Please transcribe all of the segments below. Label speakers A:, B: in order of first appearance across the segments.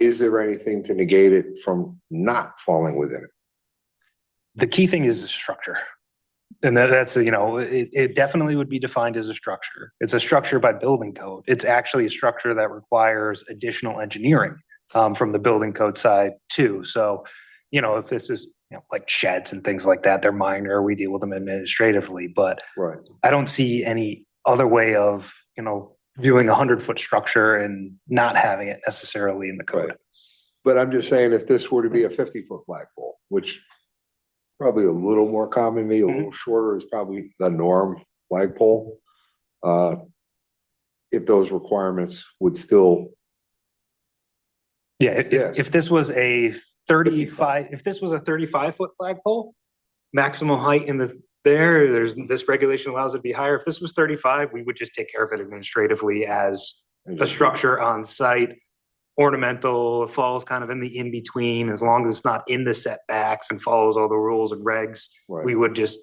A: is there anything to negate it from not falling within it?
B: The key thing is the structure. And that, that's, you know, it, it definitely would be defined as a structure. It's a structure by building code. It's actually a structure that requires additional engineering um, from the building code side too. So, you know, if this is, you know, like sheds and things like that, they're minor, we deal with them administratively, but
A: Right.
B: I don't see any other way of, you know, viewing a hundred foot structure and not having it necessarily in the code.
A: Right. But I'm just saying, if this were to be a fifty foot flagpole, which probably a little more common, maybe a little shorter is probably the norm flagpole. Uh, if those requirements would still,
B: Yeah, if-
A: Yes.
B: if, if this was a thirty-five, if this was a thirty-five foot flagpole, maximum height in the, there, there's, this regulation allows it to be higher. If this was thirty-five, we would just take care of it administratively as a structure on site. Ornamental, falls kind of in the in-between, as long as it's not in the setbacks and follows all the rules and regs, we
A: Right,
B: would just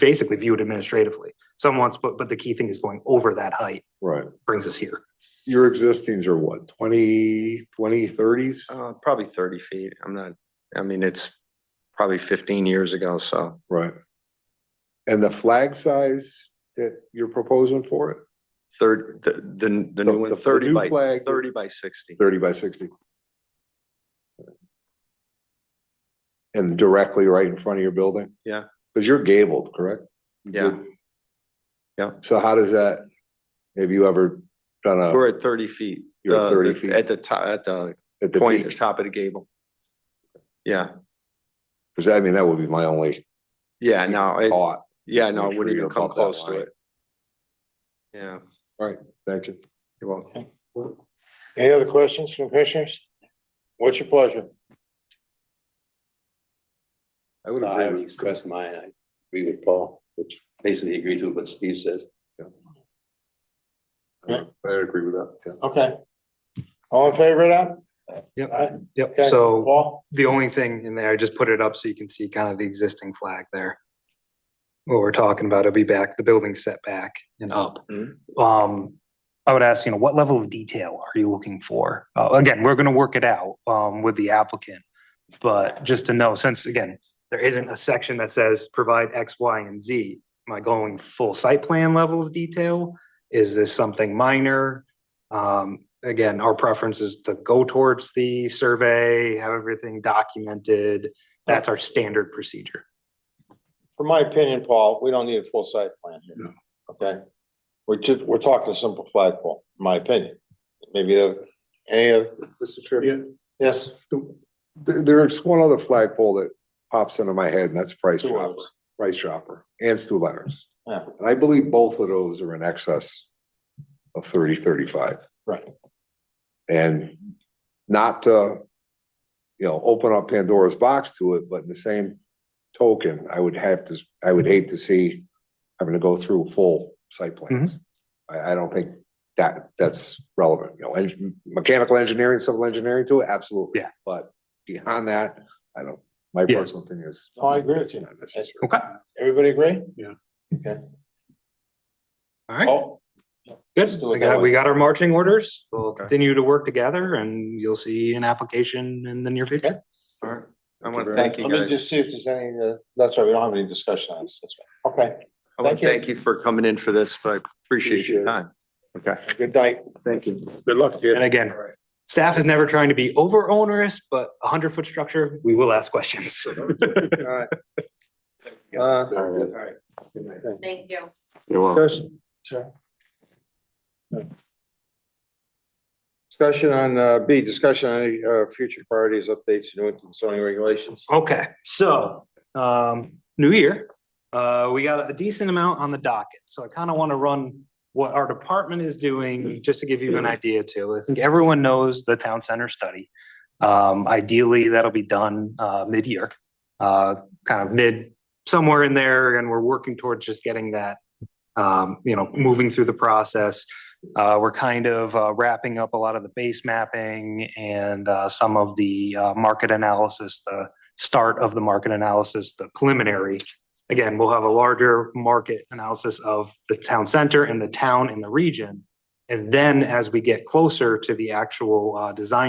B: basically view it administratively. Some wants, but, but the key thing is going over that height
A: right.
B: brings us here.
A: Your existings are what, twenty, twenty, thirties?
B: Uh-huh.
C: Uh, probably thirty feet. I'm not, I mean, it's probably fifteen years ago, so
A: Right. And the flag size that you're proposing for it,
C: third, the, the, the
A: The-
C: new one,
A: the- the
C: thirty
A: new
C: by,
A: flag-
C: thirty by sixty.
A: thirty by sixty? And directly right in front of your building?
C: Yeah.
A: Because you're gabled, correct?
C: Yeah. Yeah.
A: So how does that, have you ever done a,
C: We're at thirty feet.
A: You're at
C: uh,
A: 30
C: the-
A: feet.
C: At the top, at the
A: at the
C: point, at the
A: beach?
C: top of the gable. Yeah,
A: Because I mean, that would be my only
C: yeah, no, it,
A: thought.
C: yeah,
A: just
C: no,
A: make
C: it
A: sure
C: wouldn't
A: you're
C: even come
A: above that
C: close to
A: line.
C: it. Yeah,
A: Thank you.
C: you're welcome.
D: Any other questions from commissioners? What's your pleasure?
A: I would
E: No, I haven't
A: agree. with-
E: expressed mine. I agree with Paul, which basically agrees with what Steve says.
A: I would I would agree with that, yeah.
D: Okay. All in favor of that?
B: Yep,
D: Aye.
B: yep.
D: Okay.
B: So.
D: Paul?
B: the only thing in there, I just put it up so you can see kind of the existing flag there. What we're talking about, it'll be back, the building setback and up. Um, I would ask, you know, what level of detail are you looking for? Uh, again, we're gonna work it out, um, with the applicant. But just to know, since again, there isn't a section that says provide X, Y, and Z, am I going full site plan level of detail? Is this something minor? Um, again, our preference is to go towards the survey, have everything documented. That's our standard procedure.
D: For my opinion, Paul, we don't need a full site plan here, okay? We're just, we're talking a simple flagpole, in my opinion. Maybe the, any other,
A: Mr. Chairman.
D: yes?
A: There, there's one other flagpole that pops into my head and that's Price
D: Two
A: Chopper,
D: others.
A: Price Chopper and Stu Leonard's.
D: Yeah.
A: And I believe both of those are in excess of thirty, thirty-five.
D: Right.
A: And not to, you know, open up Pandora's box to it, but in the same token, I would have to, I would hate to see having to go through full site plans.
B: Mm-hmm.
A: I, I don't think that, that's relevant, you know, and mechanical engineering, civil engineering to it, absolutely.
B: Yeah.
A: But beyond that, I don't, my
B: Yeah.
A: personal opinion is.
D: Oh, I agree with you.
A: It's not necessary.
B: Okay.
D: Everybody agree?
B: All right.
D: Paul? Let's
B: Good.
D: do it
B: We
D: that
B: got,
D: way.
B: we got our marching orders. We'll
C: Okay.
B: continue to work together and you'll see an application in the near future.
C: All right, I
A: Thank you
C: want to
A: very
C: thank you
D: Let me
C: guys.
D: just see if there's any, uh, that's right, we don't have any discussion on this, that's right. Okay,
C: I want
D: thank
C: to
D: you.
C: thank you for coming in for this, but I
A: Appreciate
C: appreciate
A: it.
C: your time. Okay,
D: good night.
C: thank you.
D: Good luck to
B: And again, staff is never trying to be over onerous, but a hundred foot structure, we will ask questions.
D: All right. Uh, all right.
F: Thank you.
C: You're welcome.
D: Chris? Sure. Discussion on, uh, B, discussion on any, uh, future priorities, updates, new and zoning regulations.
B: Okay, so, um, new year, uh, we got a decent amount on the docket, so I kind of want to run what our department is doing, just to give you an idea too. I think everyone knows the town center study. Um, ideally, that'll be done, uh, mid-year, uh, kind of mid, somewhere in there, and we're working towards just getting that, um, you know, moving through the process. Uh, we're kind of uh, wrapping up a lot of the base mapping and, uh, some of the, uh, market analysis, the start of the market analysis, the preliminary. Again, we'll have a larger market analysis of the town center and the town and the region. And then as we get closer to the actual uh, design